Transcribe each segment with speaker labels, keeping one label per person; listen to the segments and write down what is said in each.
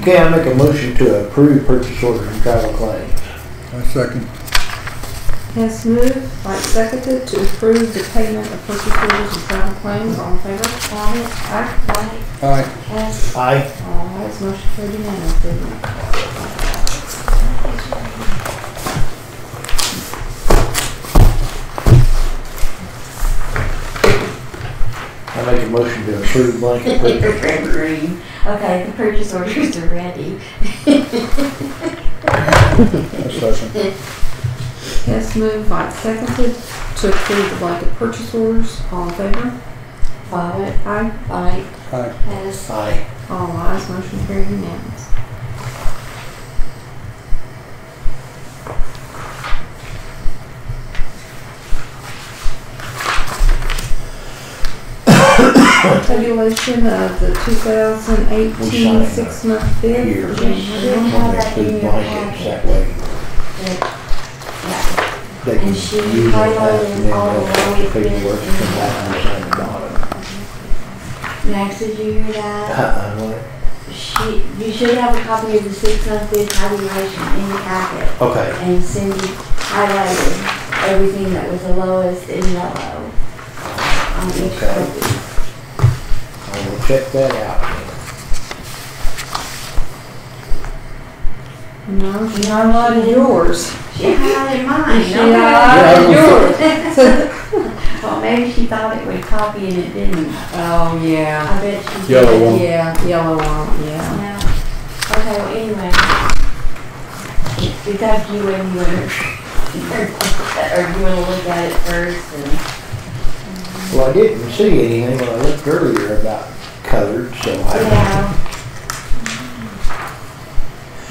Speaker 1: Okay, I make a motion to approve purchase order and travel claims.
Speaker 2: I second.
Speaker 3: Hess moved, Light seconded to approve the payment of purchase orders and travel claims. All in favor? Aye. Aye.
Speaker 2: Aye.
Speaker 3: Hess.
Speaker 1: Aye.
Speaker 3: All ayes, motion carried unanimously.
Speaker 1: I make a motion to approve blanket purchase.
Speaker 4: Green. Okay, the purchase orders are ready.
Speaker 2: I second.
Speaker 3: Hess moved, Light seconded to approve the blanket purchase orders. All in favor?
Speaker 4: Bobbit,
Speaker 3: Aye.
Speaker 4: bite,
Speaker 2: Aye.
Speaker 4: pass.
Speaker 1: Aye.
Speaker 3: All ayes, motion carried unanimously. Tabulation of uh, the 2018 six-month bid.
Speaker 1: Here.
Speaker 3: for January.
Speaker 1: One of those big blankets, that way
Speaker 4: Yeah,
Speaker 1: they can use it and then they'll have to figure work from that and sign the bottom.
Speaker 4: Max, did you hear that?
Speaker 1: Uh-uh, what?
Speaker 4: She, you should have a copy of the six month bid tabulation in your packet.
Speaker 1: Okay,
Speaker 4: And Cindy highlighted everything that was the lowest in yellow. On each
Speaker 1: Okay.
Speaker 4: copy.
Speaker 1: I will check that out.
Speaker 3: No, she highlighted yours.
Speaker 4: She highlighted mine.
Speaker 3: She
Speaker 4: okay.
Speaker 3: highlighted yours.
Speaker 4: Well, maybe she thought it was copy and it didn't.
Speaker 3: Oh, yeah.
Speaker 4: I bet she did.
Speaker 2: Yellow one.
Speaker 3: Yeah, yellow one, yeah.
Speaker 4: Yeah. Okay, well, anyway. We got you and you were, or you wanna look at it first and.
Speaker 1: Well, I didn't see anything when I looked earlier about colored, so I don't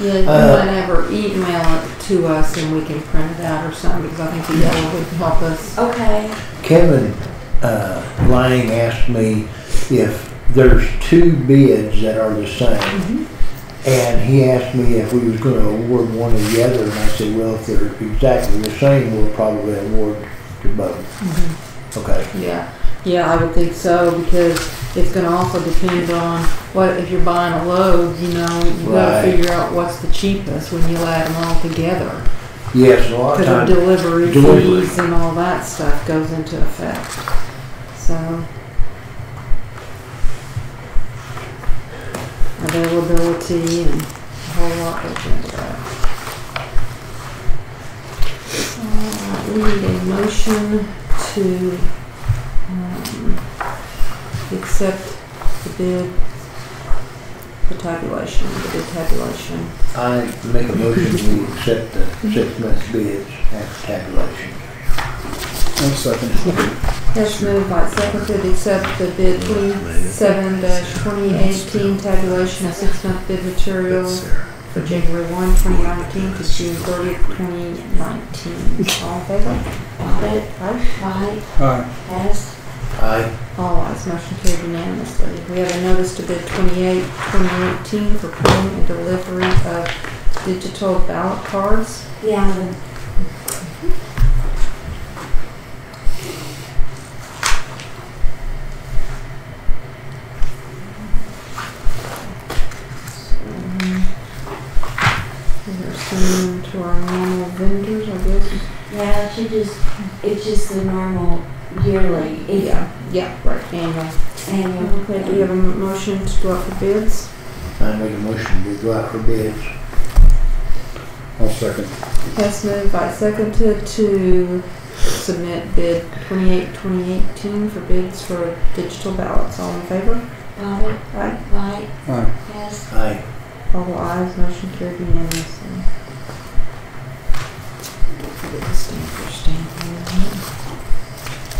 Speaker 4: Yeah,
Speaker 3: Yeah, you
Speaker 1: Uh,
Speaker 3: might have her email it to us and we can print it out or something, because I think the yellow would help us.
Speaker 4: okay.
Speaker 1: Kevin uh, Lang asked me if there's two bids that are the same.
Speaker 2: Mm-hmm.
Speaker 1: And he asked me if we was gonna award one or the other, and I said, well, if they're exactly the same, we'll probably award to both. Okay,
Speaker 3: Yeah, yeah, I would think so, because it's gonna also depend on what, if you're buying a load, you know, you
Speaker 1: Right.
Speaker 3: gotta figure out what's the cheapest when you add them all together.
Speaker 1: yes, a lot of
Speaker 3: Cause our
Speaker 1: times,
Speaker 3: delivery
Speaker 1: delivery.
Speaker 3: fees and all that stuff goes into effect, so. Availability and a whole lot goes into that. Alright, we need a motion to, um, accept the bid, the tabulation, the bid tabulation.
Speaker 1: I make a motion we accept
Speaker 2: Mm-hmm.
Speaker 1: the six-month bids after tabulation.
Speaker 2: I second.
Speaker 3: Yes, moved by seconded, accept the bid twenty-seven twenty eighteen tabulation of six-month bid materials for January one, twenty nineteen to June thirtieth, twenty nineteen. All in favor?
Speaker 4: Bobbit, White,
Speaker 2: Aye.
Speaker 4: Hess,
Speaker 1: I,
Speaker 3: All ayes, motion carried unanimously. We have a notice to bid twenty-eight, twenty eighteen for printing and delivery of digital ballot cards.
Speaker 4: yeah, the-
Speaker 3: We're sending them to our normal vendors, I guess.
Speaker 4: yeah, she just, it's just the normal yearly. It's
Speaker 3: Yeah, yeah, right, annual.
Speaker 4: annual.
Speaker 3: Okay, do you have a motion to go out for bids?
Speaker 1: I make a motion to go out for bids.
Speaker 2: I'll second.
Speaker 3: Hess moved by seconded to submit bid 28-2018 for bids for digital ballots. All in favor?
Speaker 4: Bobbit,
Speaker 3: Aye.
Speaker 4: White,
Speaker 2: Aye.
Speaker 4: Hess,
Speaker 1: I,
Speaker 3: All ayes, motion carried unanimously. Get the stamper stamp on that.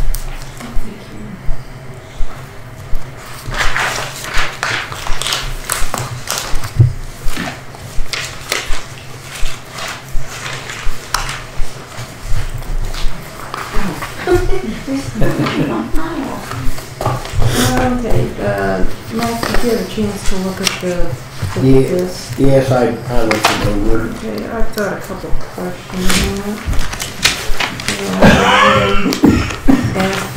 Speaker 3: Okay, uh, Max, did you have a chance to look at the, the
Speaker 1: Yeah.
Speaker 3: list?
Speaker 1: yes, I, I looked it over.
Speaker 3: Okay, I've got a Um, couple questions. on it. Yeah, I Asked